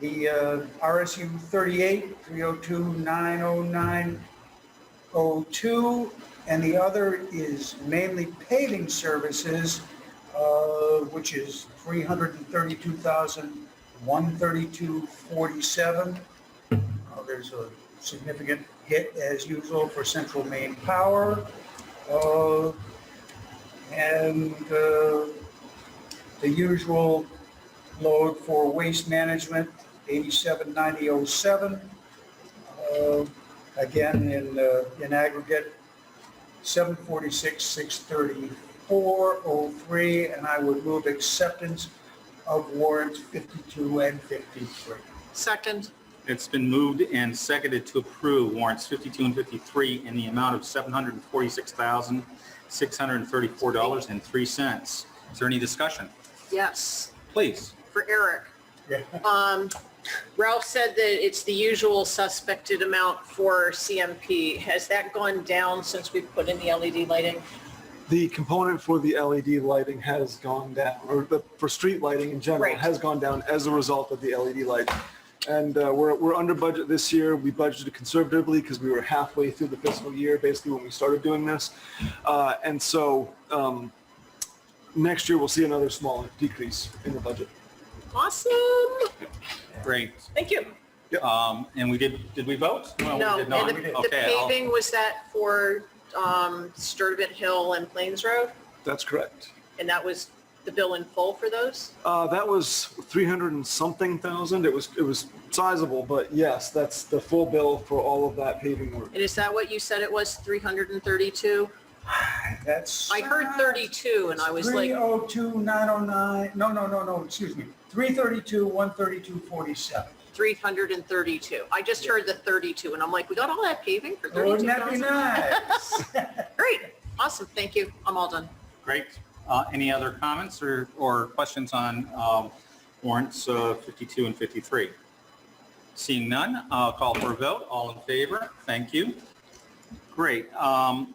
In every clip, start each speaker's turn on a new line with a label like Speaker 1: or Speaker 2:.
Speaker 1: the uh, RSU 38, 302-90902, and the other is mainly paving services, uh, which is 332,132.47. Uh, There's a significant hit, as usual, for Central Maine Power. Uh, And uh, the usual load for waste management, 879007. Uh, Again, in, uh, in aggregate, 746,634.03, and I would move acceptance of warrants 52 and 53.
Speaker 2: Second,
Speaker 3: It's been moved and seconded to approve warrants 52 and 53 in the amount of $746,634.03. Is there any discussion?
Speaker 2: yes,
Speaker 3: Please.
Speaker 2: for Eric.
Speaker 1: Yeah.
Speaker 2: Um, Ralph said that it's the usual suspected amount for CMP. Has that gone down since we put in the LED lighting?
Speaker 4: The component for the LED lighting has gone down, or the, for street lighting in general,
Speaker 2: Right.
Speaker 4: has gone down as a result of the LED lighting. And uh, we're, we're under budget this year. We budgeted conservatively because we were halfway through the fiscal year, basically when we started doing this. Uh, And so um, next year, we'll see another small decrease in the budget.
Speaker 2: Awesome.
Speaker 3: Great.
Speaker 2: Thank you.
Speaker 3: Um, And we did, did we vote?
Speaker 2: No,
Speaker 3: we
Speaker 2: and
Speaker 3: did not.
Speaker 2: the the
Speaker 3: Okay, I'll-
Speaker 2: paving, was that for um, Sturtevant Hill and Plains Road?
Speaker 4: That's correct.
Speaker 2: And that was the bill in full for those?
Speaker 4: Uh, that was 300 and something thousand. It was, it was sizable, but yes, that's the full bill for all of that paving work.
Speaker 2: And is that what you said it was, 332?
Speaker 1: That's.
Speaker 2: I heard 32 and I was like,
Speaker 1: 302-909, no, no, no, no, excuse me, 332-132.47.
Speaker 2: 332. I just heard the 32 and I'm like, we got all that paving for
Speaker 1: Wouldn't that be
Speaker 2: 32,000?
Speaker 1: nice?
Speaker 2: Great. Awesome. Thank you. I'm all done.
Speaker 3: Great. Uh, Any other comments or, or questions on um, warrants uh, 52 and 53? Seeing none, I'll call for a vote. All in favor? Thank you. Great. Um,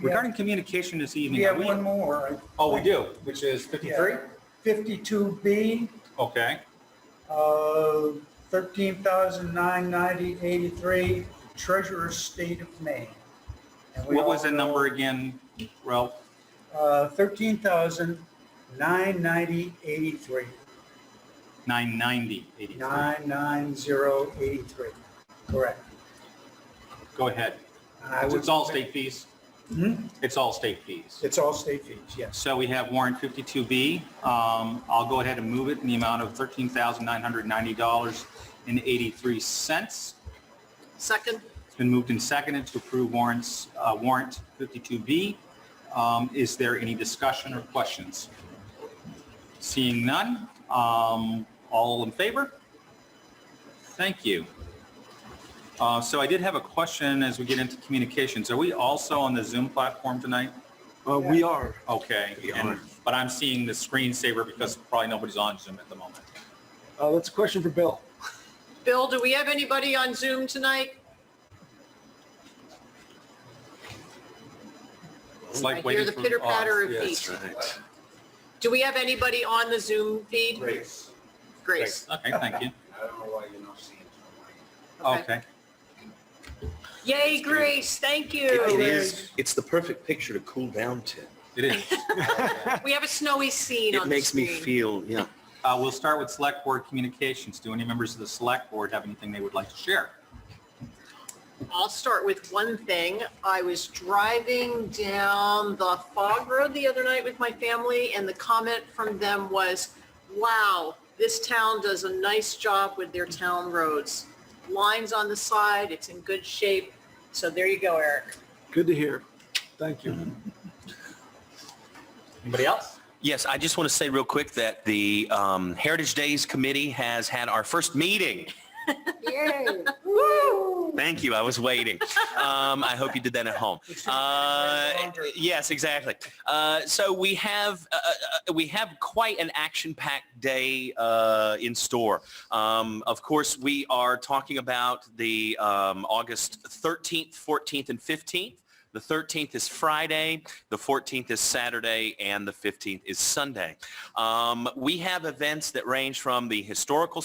Speaker 3: Regarding communication this
Speaker 1: We
Speaker 3: evening, are
Speaker 1: have
Speaker 3: we,
Speaker 1: one more. I
Speaker 3: oh, we
Speaker 1: think.
Speaker 3: do, which is 53?
Speaker 1: 52B,
Speaker 3: Okay,
Speaker 1: uh, 13,990.83, Treasurer State of Maine. And we
Speaker 3: what was
Speaker 1: all
Speaker 3: the number again, Ralph?
Speaker 1: know, Uh, 13,990.83,
Speaker 3: 990, 83.
Speaker 1: 990.83, correct.
Speaker 3: Go ahead.
Speaker 1: And I
Speaker 3: It's
Speaker 1: would-
Speaker 3: it's all state fees?
Speaker 1: Hmm?
Speaker 3: It's all state fees.
Speaker 1: It's all state fees, yes.
Speaker 3: So we have warrant 52B. Um, I'll go ahead and move it in the amount of $13,990.83.
Speaker 2: Second,
Speaker 3: It's been moved and seconded to approve warrants, uh, warrant 52B. Um, Is there any discussion or questions? Seeing none, um, all in favor? Thank you. Uh, So I did have a question as we get into communications. Are we also on the Zoom platform tonight?
Speaker 4: Uh, we are.
Speaker 3: Okay. and- But I'm seeing the screensaver because probably nobody's on Zoom at the moment.
Speaker 4: Uh, that's a question for Bill.
Speaker 2: Bill, do we have anybody on Zoom tonight?
Speaker 3: It's
Speaker 2: I
Speaker 3: like
Speaker 2: hear
Speaker 3: waiting
Speaker 2: the
Speaker 3: for-
Speaker 2: pitter patter
Speaker 3: oh,
Speaker 2: of
Speaker 3: yes.
Speaker 2: feet. Do we have anybody on the Zoom feed?
Speaker 1: Grace,
Speaker 2: Grace.
Speaker 3: Okay, thank you.
Speaker 1: I don't know why you're not seeing it.
Speaker 3: Okay.
Speaker 2: Yay, Grace. Thank
Speaker 5: It
Speaker 2: you.
Speaker 5: is, it's the perfect picture to cool down to.
Speaker 3: It is.
Speaker 2: We have a snowy scene
Speaker 5: It
Speaker 2: on the
Speaker 5: makes me
Speaker 2: screen.
Speaker 5: feel, yeah.
Speaker 3: Uh, We'll start with Select Board Communications. Do any members of the Select Board have anything they would like to share?
Speaker 2: I'll start with one thing. I was driving down the fog road the other night with my family and the comment from them was, wow, this town does a nice job with their town roads. Lines on the side, it's in good shape. So there you go, Eric.
Speaker 4: Good to hear. Thank you.
Speaker 3: Anybody else?
Speaker 5: Yes, I just want to say real quick that the um, Heritage Days Committee has had our first meeting. Thank you. I was waiting. Um, I hope you did that at home. Uh, yes, exactly. Uh, so we have uh, uh, we have quite an action-packed day uh, in store. Um, of course, we are talking about the um, August 13th, 14th, and 15th. The 13th is Friday, the 14th is Saturday, and the 15th is Sunday. Um, we have events that range from the historical